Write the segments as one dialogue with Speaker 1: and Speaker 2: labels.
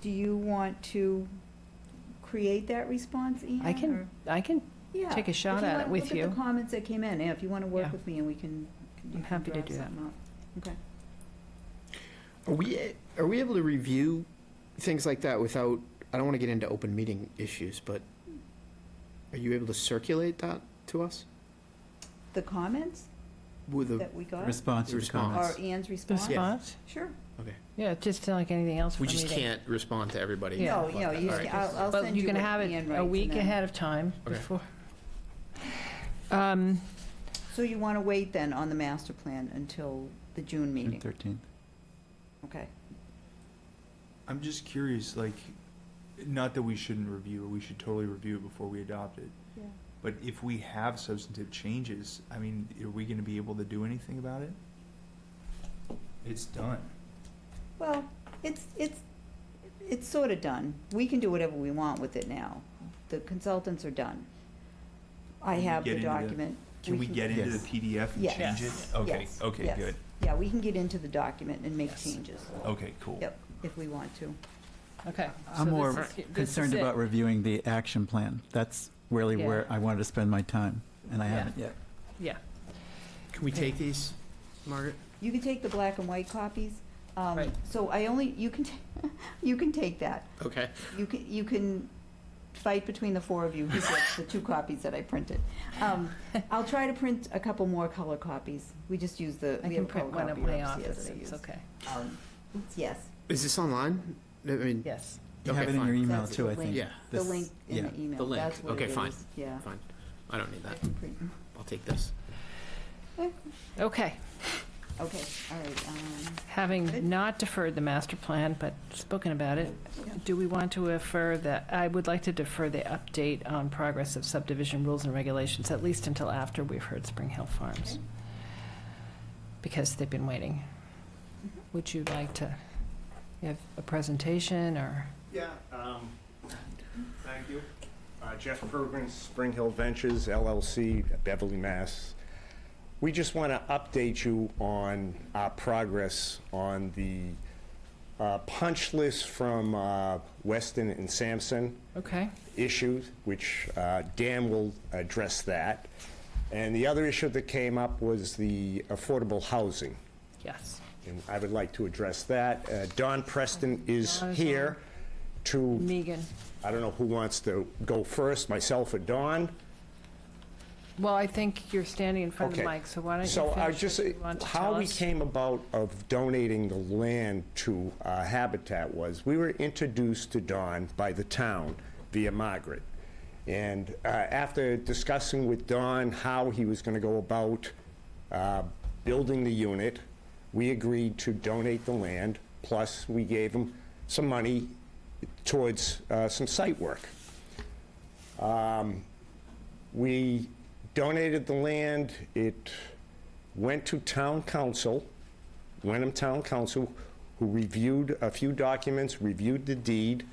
Speaker 1: do you want to create that response, Ian?
Speaker 2: I
Speaker 1: or-
Speaker 2: can, I can,
Speaker 1: Yeah,
Speaker 2: take a shot at it with
Speaker 1: If you want,
Speaker 2: you.
Speaker 1: look at the comments that came in, yeah, if you want to work
Speaker 2: Yeah.
Speaker 1: with me and we can. you
Speaker 2: I'm
Speaker 1: can
Speaker 2: happy to
Speaker 1: draft
Speaker 2: do that.
Speaker 1: something up. Okay.
Speaker 3: Are we, are we able to review things like that without, I don't want to get into open meeting issues, but are you able to circulate that to us?
Speaker 1: The comments
Speaker 3: With the,
Speaker 1: that we got,
Speaker 4: Response to the
Speaker 3: Response.
Speaker 1: or
Speaker 4: comments.
Speaker 1: Anne's response?
Speaker 2: response?
Speaker 1: Sure.
Speaker 2: Yeah, just like anything else.
Speaker 3: we
Speaker 2: for a
Speaker 3: just
Speaker 2: meeting.
Speaker 3: can't respond to everybody.
Speaker 2: Yeah.
Speaker 1: No, no, you,
Speaker 3: All right.
Speaker 1: I'll, I'll
Speaker 2: But
Speaker 1: send
Speaker 2: you
Speaker 1: you
Speaker 2: can
Speaker 1: what
Speaker 2: have it
Speaker 1: Anne writes
Speaker 2: a
Speaker 1: and
Speaker 2: week
Speaker 1: then-
Speaker 2: ahead of time
Speaker 3: Okay.
Speaker 2: before. Um,
Speaker 1: So you want to wait then on the master plan until the June
Speaker 4: June
Speaker 1: meeting,
Speaker 4: 13th.
Speaker 1: okay?
Speaker 5: I'm just curious, like, not that we shouldn't review, it, we should totally review it before we adopt it. But if we have substantive changes, I mean, are we gonna be able to do anything about it? It's done.
Speaker 1: Well, it's, it's, it's sort of done. We can do whatever we want with it now. The consultants are done. I
Speaker 5: Can we
Speaker 1: have
Speaker 5: get
Speaker 1: the
Speaker 5: into the-
Speaker 1: document.
Speaker 5: Can we get into the
Speaker 4: Yes.
Speaker 5: PDF and
Speaker 1: Yes.
Speaker 5: change it?
Speaker 1: Yes.
Speaker 5: Okay,
Speaker 1: Yes.
Speaker 5: okay,
Speaker 1: Yes.
Speaker 5: good.
Speaker 1: Yeah, we can get into the document and make
Speaker 2: Yes.
Speaker 1: changes,
Speaker 5: Okay, cool.
Speaker 1: yep, if we want to.
Speaker 2: okay. so
Speaker 4: I'm
Speaker 2: this
Speaker 4: more
Speaker 2: is- this is
Speaker 4: concerned
Speaker 2: it.
Speaker 4: about reviewing the action plan. That's really
Speaker 2: Yeah.
Speaker 4: where I wanted to spend my time, and I
Speaker 2: Yeah.
Speaker 4: haven't yet.
Speaker 2: Yeah,
Speaker 3: Can we take these, Margaret?
Speaker 1: You can take the black and white copies. Um,
Speaker 2: Right.
Speaker 1: So I only, you can, ta- you can take that.
Speaker 3: Okay.
Speaker 1: You can, you can fight between the four of you who gets the two copies that I printed. Um, I'll try to print a couple more color copies. We just use the,
Speaker 2: I
Speaker 1: we have a
Speaker 2: can
Speaker 1: color
Speaker 2: print one
Speaker 1: copy
Speaker 2: at
Speaker 1: of
Speaker 2: my
Speaker 1: CS
Speaker 2: office,
Speaker 1: that I
Speaker 2: it's
Speaker 1: use.
Speaker 2: okay.
Speaker 1: Um, Yes,
Speaker 3: Is this online? I mean,
Speaker 2: Yes.
Speaker 4: You
Speaker 3: Okay,
Speaker 4: have it in your
Speaker 3: fine.
Speaker 4: email
Speaker 1: That's
Speaker 4: too,
Speaker 1: the
Speaker 4: I think.
Speaker 3: yeah,
Speaker 1: the
Speaker 4: This-
Speaker 1: link in
Speaker 4: yeah.
Speaker 1: the email.
Speaker 3: The link.
Speaker 1: That's what
Speaker 3: Okay,
Speaker 1: it
Speaker 3: fine.
Speaker 1: is. Yeah.
Speaker 3: fine. I don't need
Speaker 1: I
Speaker 3: that.
Speaker 1: can print-
Speaker 3: I'll take this.
Speaker 2: Okay,
Speaker 1: Okay, all right. um, Good.
Speaker 2: having not deferred the master plan, but spoken about it,
Speaker 1: yeah.
Speaker 2: do we want to defer that, I would like to defer the update on progress of subdivision rules and regulations, at least until after we've heard Spring Hill Farms.
Speaker 1: Okay.
Speaker 2: Because they've been waiting.
Speaker 1: Mm-hmm.
Speaker 2: Would you like to have a presentation or?
Speaker 6: Yeah, um, thank you. Uh, Jeff Pergrin, Spring Hill Ventures LLC, Beverly, Mass. We just want to update you on our progress on the uh, punch list from uh, Weston and Sampson
Speaker 2: Okay,
Speaker 6: issues, which uh, Dan will address that. And the other issue that came up was the affordable housing,
Speaker 2: yes.
Speaker 6: and I would like to address that. Uh, Don Preston is
Speaker 2: Don is on.
Speaker 6: here to
Speaker 2: Megan,
Speaker 6: I don't know who wants to go first, myself or Dawn?
Speaker 2: well, I think you're standing in front of the
Speaker 6: Okay.
Speaker 2: mic, so why don't you
Speaker 6: So I
Speaker 2: finish
Speaker 6: just,
Speaker 2: what you want to tell
Speaker 6: how we
Speaker 2: us?
Speaker 6: came about of donating the land to uh, Habitat was, we were introduced to Dawn by the town via Margaret. And uh, after discussing with Don how he was going to go about uh, building the unit, we agreed to donate the land, plus we gave him some money towards uh, some site work. We donated the land, it went to town council, Wenham Town Council, who reviewed a few documents, reviewed the deed.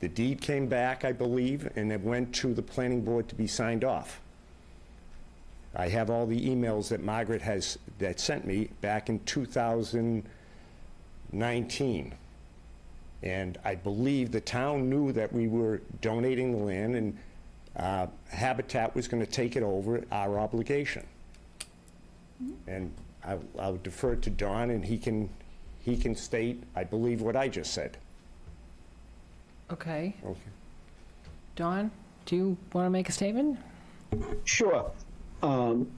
Speaker 6: The deed came back, I believe, and it went to the planning board to be signed off. I have all the emails that Margaret has, that sent me back in 2019. And I believe the town knew that we were donating the land, and uh, Habitat was going to take it over, our obligation. And I- I'll defer to Don, and he can, he can state, I believe, what I just said.
Speaker 2: Okay,
Speaker 6: Okay.
Speaker 2: Dawn, do you want to make a statement?
Speaker 7: Sure. Um,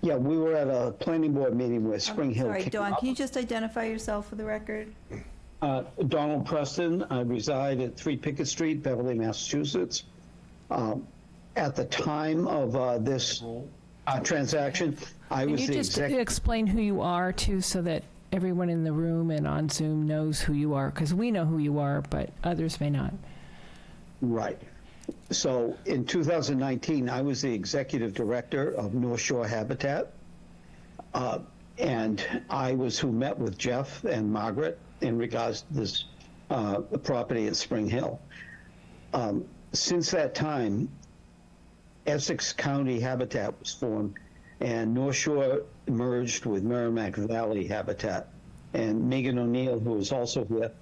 Speaker 7: Yeah, we were at a planning board meeting where Spring Hill
Speaker 1: Sorry,
Speaker 7: came
Speaker 1: Dawn,
Speaker 7: up.
Speaker 1: can you just identify yourself for the record?
Speaker 7: Uh, Donald Preston, I reside at 3 Pickett Street, Beverly, Massachusetts. Um, At the time of uh, this uh, transaction, I
Speaker 2: Can
Speaker 7: was
Speaker 2: you
Speaker 7: the
Speaker 2: just
Speaker 7: executive.
Speaker 2: explain who you are too, so that everyone in the room and on Zoom knows who you are? Because we know who you are, but others may not.
Speaker 7: Right. So in 2019, I was the executive director of North Shore Habitat. Uh, And I was who met with Jeff and Margaret in regards to this uh, property at Spring Hill. Um, Since that time, Essex County Habitat was formed, and North Shore merged with Merrimack Valley Habitat. And Megan O'Neill, who is also here,